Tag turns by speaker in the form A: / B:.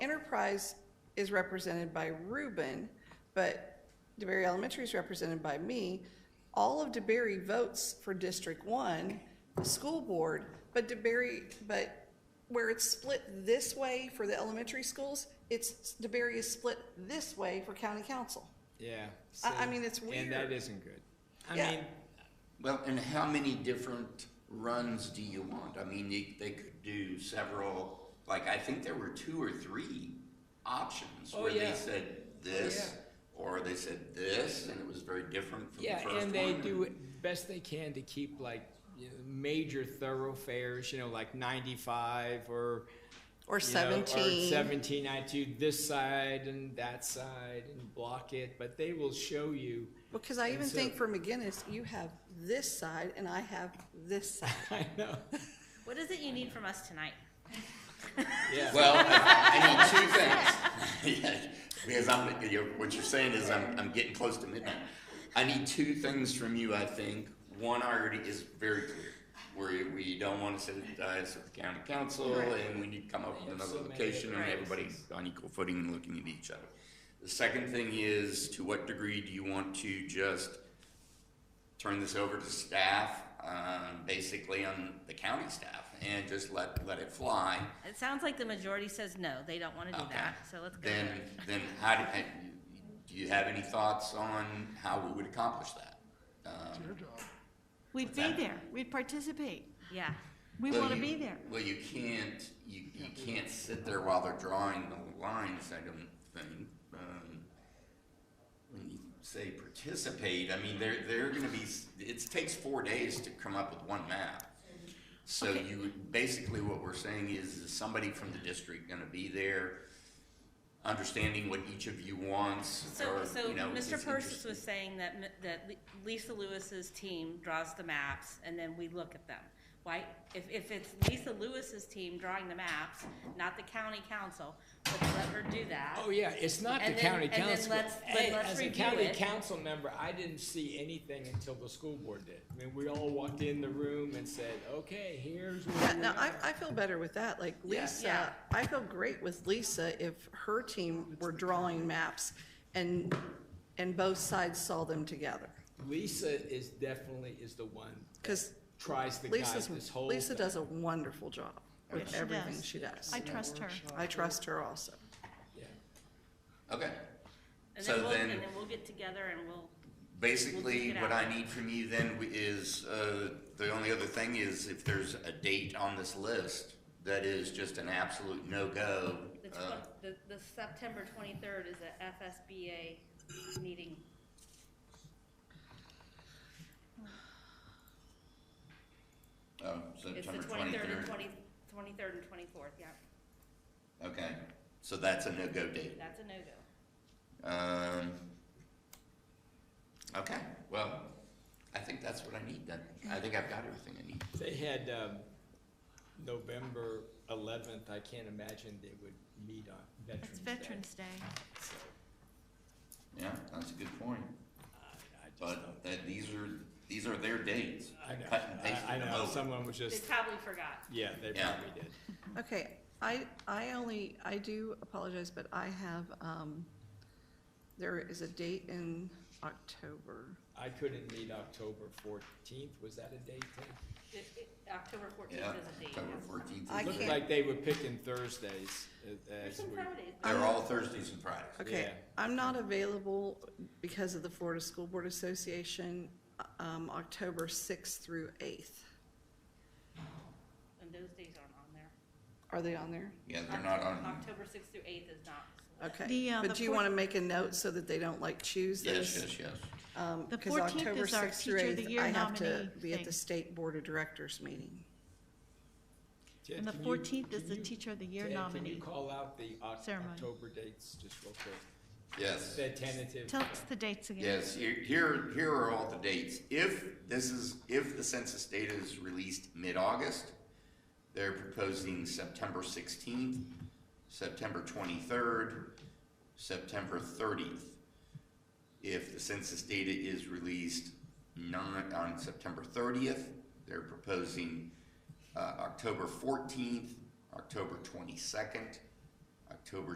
A: Enterprise is represented by Ruben, but DeBerry Elementary is represented by me. All of DeBerry votes for District One, the school board, but DeBerry, but where it's split this way for the elementary schools, it's, DeBerry is split this way for county council.
B: Yeah.
A: I- I
B: so-
A: mean, it's
B: And that
A: weird.
B: isn't good. I
A: Yeah.
B: mean,
C: Well, and how many different runs do you want? I mean, they, they could do several, like, I think there were two or three options
B: Oh,
C: where they
B: yeah.
C: said this, or they said this, and it was very different from the
B: yeah,
C: first one.
B: and they do it best they can to keep like you know, major thoroughfares, you know, like ninety-five or.
A: Or
B: you know, Or
A: seventeen.
B: seventeen, I do this side and that side and block it, but they will show you.
A: Because I
B: And
A: even
B: so-
A: think for McGinnis, you have this side and I have this side.
B: I know,
D: What is it you need from us tonight?
B: yeah.
C: Well, I I need two things. Because I'm, you're, what you're saying is I'm, I'm getting close to midnight. I need two things from you, I think. One already is very clear, where we don't want to sit at the dais of the county council and we need to come up with another location and everybody's on equal footing and looking at each other. The second thing is, to what degree do you want to just turn this over to staff, um, basically on the county staff, and just let, let it fly?
D: It sounds like the majority says no, they don't wanna do
C: Okay.
D: that, so let's go.
C: Then,
D: with it.
C: then how do, and do you have any thoughts on how we would accomplish that? Um,
E: We'd be
C: that?
E: there, we'd participate,
D: Yeah,
E: we
C: well,
E: want to
C: you-
E: be there.
C: Well, you can't, you, you can't sit there while they're drawing the lines, I don't think. Um, When you say participate, I mean, they're, they're gonna be, s- it takes four days to come up with one map. So
E: Okay.
C: you, basically what we're saying is, is somebody from the district gonna be there, understanding what each of you wants,
D: so,
C: or,
D: so
C: you know.
D: Mr.
C: it's
D: Persis was
C: interesting.
D: saying that, m- that Li- Lisa Lewis's team draws the maps and then we look at them. Why, if, if it's Lisa Lewis's team drawing the maps, not the county council, let's let her do that.
B: Oh, yeah, it's not the
D: And then-
B: county
D: and then
B: council.
D: let's- then
B: Hey,
D: let's
B: As a
D: review
B: county
D: it.
B: council member, I didn't see anything until the school board did. I mean, we all walked in the room and said, okay, here's
A: Yeah,
B: what we
A: no, I,
B: are."
A: I feel better with that, like
B: Yeah.
A: Lisa,
D: Yeah.
A: I feel great with Lisa if her team were drawing maps and, and both sides saw them together.
B: Lisa is definitely, is the one
A: Because
B: tries to guide
A: Lisa's,
B: this whole.
A: Lisa
B: thing.
A: does a wonderful job with
E: she
A: everything
E: does.
A: she does.
E: I trust her.
A: I trust her also.
B: Yeah.
C: Okay.
D: And
C: So
D: then we'll,
C: then-
D: and then we'll get together and we'll,
C: Basically,
D: We'll take it
C: what
D: out.
C: I need from you then w- is, uh, the only other thing is if there's a date on this list that is just an absolute no-go.
D: the, tw-
C: uh,
D: the, the September twenty-third is a FSBA meeting.
C: Oh,
D: It's the
C: September
D: twenty-third and
C: twenty-third.
D: twenty, twenty-third and twenty-fourth, yeah,
C: Okay, so that's a no-go date.
D: that's a no-go.
C: Um, okay, well, I think that's what I need then. I think I've got everything I need.
B: They had, um, November eleventh, I can't imagine they would meet on Veterans
E: It's
B: Day.
E: Veterans Day.
B: So,
C: Yeah, that's a good point.
B: I- I just don't-
C: But, uh, these are, these are their dates.
B: I know,
C: Cut and
B: I, I
C: pasted them
B: know,
C: over.
B: someone was
D: They
B: just,
D: probably forgot.
B: yeah, they
C: Yeah.
B: probably did.
A: Okay, I, I only, I do apologize, but I have, um, there is a date in October.
B: I couldn't meet October fourteenth, was that a date thing?
D: It- it- October fourteenth
C: Yeah,
D: is a date.
C: October fourteenth.
A: I
B: Looked
A: can't-
B: like they were picking Thursdays a-
D: There's
B: as
D: some
B: we.
D: Fridays.
C: They're all Thursdays and Fridays.
A: Okay,
B: Yeah.
A: I'm not available because of the Florida School Board Association, um, October sixth through eighth.
D: And those days aren't on there.
A: Are they on there?
C: Yeah, they're not on.
D: October sixth through eighth is not.
A: Okay,
E: The, uh,
A: but
E: the
A: do you
E: four-
A: want to make a note so that they don't like choose
C: Yes,
A: this?
C: yes, yes.
A: Um,
E: The
A: 'cause
E: 14th
A: October
E: is our
A: 6th through
E: Teacher of the
A: 8th,
E: Year
A: I have to
E: nominee
A: be at the
E: thing.
A: state board of directors meeting.
B: Ted,
E: And the
B: can you-
E: 14th is
B: can
E: the
B: you-
E: Teacher of the Year
B: Ted, Can
E: nominee.
B: you call out the Oc-
E: ceremony.
B: October dates just real quick?
C: Yes.
B: The tentative.
E: Tell us the dates again.
C: Yes, here- here, here are all the dates. If this is, if the census data is released mid-August, they're proposing September sixteenth, September twenty-third, September thirtieth. If the census data is released not on September thirtieth, they're proposing uh, October fourteenth, October twenty-second, October